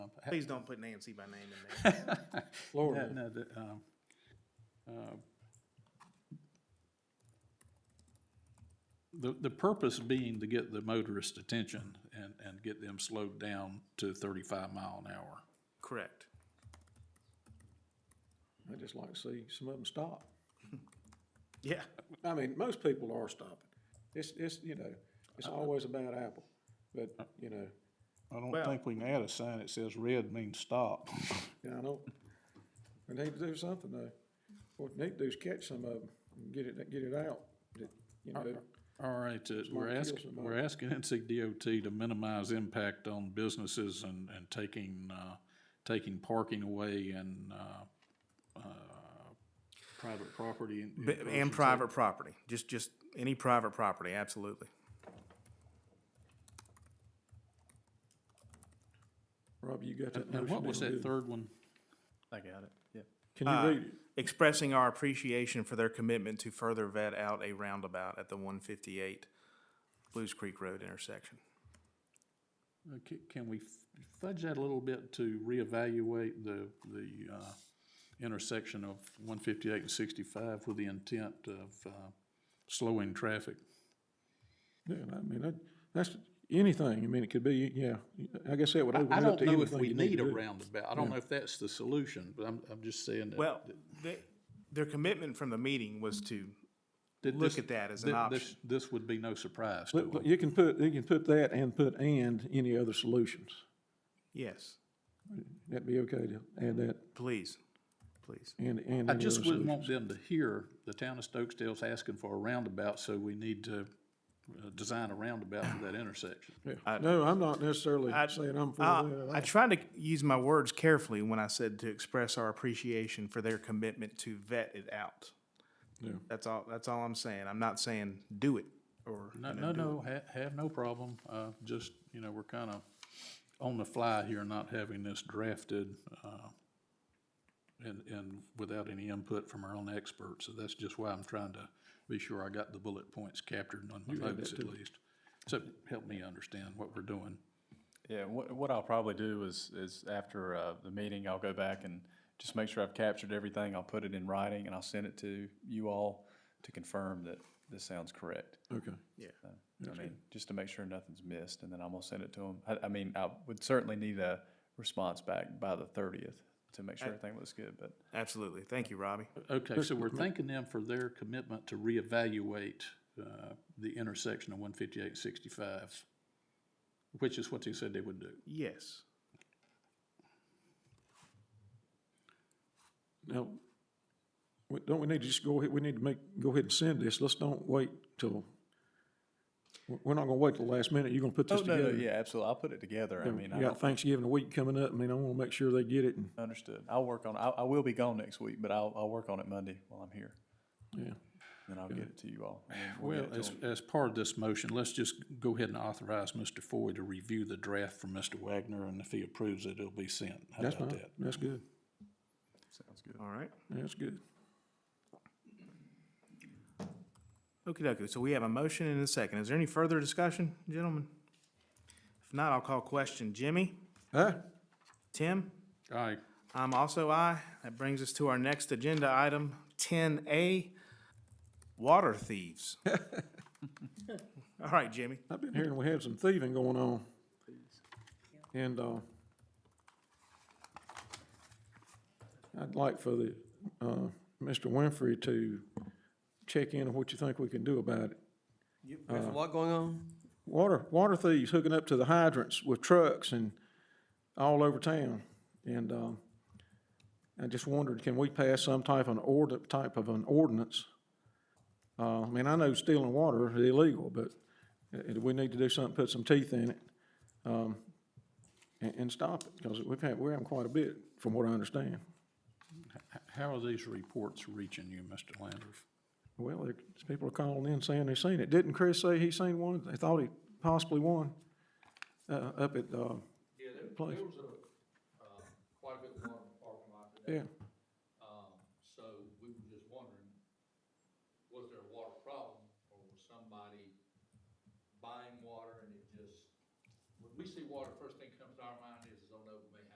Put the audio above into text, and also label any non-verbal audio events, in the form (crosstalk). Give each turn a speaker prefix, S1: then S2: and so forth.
S1: Please
S2: (laughs)
S1: don't put Nancy by name in there.
S3: Florida.
S2: No, no, the, um, uh, The, the purpose being to get the motorist attention and, and get them slowed down to thirty-five mile an hour.
S1: Correct.
S3: I just like to see some of them stop.
S1: Yeah,
S3: I mean, most people are stopping. It's, it's, you know, it's always a bad apple, but, you know,
S2: I
S1: Well-
S2: don't think we can add a sign that says red means stop. (laughs)
S3: yeah, I know. We need to do something though. What we need to do is catch some of them and get it, get it out, that, you know,
S2: All right, uh, we're
S3: kill
S2: asking,
S3: somebody.
S2: we're asking NCDOT to minimize impact on businesses and, and taking, uh, taking parking away and, uh, uh, private property. in- in
S1: B- and
S2: persons.
S1: private property, just, just any private property, absolutely.
S3: Robbie, you got that
S2: Now,
S3: motion?
S2: what was that uh,
S3: down, didn't you?
S2: third one?
S4: I got it, yeah.
S3: Can you read it?
S1: Expressing our appreciation for their commitment to further vet out a roundabout at the one fifty-eight Blues Creek Road intersection.
S2: Uh, ca- Can we f- fudge that a little bit to reevaluate the, the uh, intersection of 158 and 65 with the intent of uh, slowing traffic?
S3: Yeah, I mean, that, that's anything. I mean, it could be, yeah, I guess that would open
S2: I
S3: it
S2: don't
S3: up to
S2: know if
S3: anything
S2: we
S3: you need
S2: need
S3: to
S2: a
S3: do.
S2: roundabout. I don't know if that's the solution, but I'm, I'm just saying that.
S1: Well,
S2: that-
S1: they, their commitment from the meeting was to
S2: that
S1: look
S2: this-
S1: at that as an
S2: that this-
S1: option.
S2: This would be no surprise to
S3: But- but
S2: them.
S3: You can put, you can put that and put and any other solutions.
S1: Yes,
S3: That'd be okay to add that
S1: please, please.
S3: and, and. any
S2: I
S3: other
S2: just wouldn't
S3: solution.
S2: want them to hear the town of Stokesdale's asking for a roundabout, so we need to uh, design a roundabout for that intersection.
S3: Yeah. No, I'm not necessarily
S1: I-
S3: saying I'm for
S1: Uh,
S3: that.
S1: I tried to use my words carefully when I said to express our appreciation for their commitment to vet it out.
S3: Yeah.
S1: That's all, that's all I'm saying. I'm not saying do it or.
S2: No,
S1: you know,
S2: no,
S1: do it.
S2: no, ha- have no problem, uh, just, you know, we're kind of on the fly here, not having this drafted, uh, and, and without any input from our own experts, so that's just why I'm trying to be sure I got the bullet points captured on my notes at least. So help me understand what we're doing.
S4: Yeah, what, what I'll probably do is, is after, uh, the meeting, I'll go back and just make sure I've captured everything. I'll put it in writing and I'll send it to you all to confirm that this sounds correct.
S3: Okay.
S4: Uh, I mean, just to make sure nothing's missed, and then I'm gonna send it to them. I, I mean, I would certainly need a response back by the thirtieth to make sure everything looks good, but.
S1: Absolutely. Thank you, Robbie.
S2: Okay, so we're thanking them for their commitment to reevaluate, uh, the intersection of one fifty-eight and sixty-five, which is what they said they would do.
S1: Yes.
S3: Now, we- don't we need to just go ahead, we need to make, go ahead and send this. Let's don't wait till, we're- we're not gonna wait till the last minute. You're gonna put this
S4: Oh, no, no,
S3: together.
S4: yeah, absolutely. I'll put it together. I mean, I
S3: You got
S4: don't,
S3: Thanksgiving week coming up. I mean, I wanna make sure they get it and,
S4: understood. I'll work on, I, I will be gone next week, but I'll, I'll work on it Monday while I'm here.
S3: yeah.
S4: Then I'll get it to you all. and then we'll
S2: Well,
S4: get it to
S2: as,
S4: 'em.
S2: as part of this motion, let's just go ahead and authorize Mr. Foy to review the draft from Mr. Wagner, and if he approves it, it'll be sent. How
S3: That's
S2: about
S3: fine.
S2: that?
S3: That's good.
S4: Sounds good.
S1: All right.
S3: That's good.
S1: Okie dokie. So we have a motion and a second. Is there any further discussion, gentlemen? If not, I'll call question. Jimmy?
S3: Huh?
S1: Tim?
S2: All right,
S1: I'm Um, also I. That brings us to our next agenda item, ten A, water thieves. All right, Jimmy.
S3: I've been hearing we had some thieving going on. And, uh, I'd like for the, uh, Mr. Winfrey to check in on what you think we can do about it.
S5: There's a lot going on.
S3: Water, water thieves hooking up to the hydrants with trucks and all over town. And, um, I just wondered, can we pass some type of an ord, type of an ordinance? Uh, I mean, I know stealing water is illegal, but uh, we need to do something, put some teeth in it, um, and, and stop it, because we've had, we're having quite a bit, from what I understand.
S2: H- how are these reports reaching you, Mr. Landers?
S3: Well, there- people are calling in saying they seen it. Didn't Chris say he seen one? They thought he possibly won, uh, up at, uh,
S6: Yeah, there,
S3: Place.
S6: there was a, uh, quite a bit of water in the parking lot today.
S3: yeah,
S6: Um, so we were just wondering, was there a water problem or was somebody buying water and it just, when we see water, first thing comes to our mind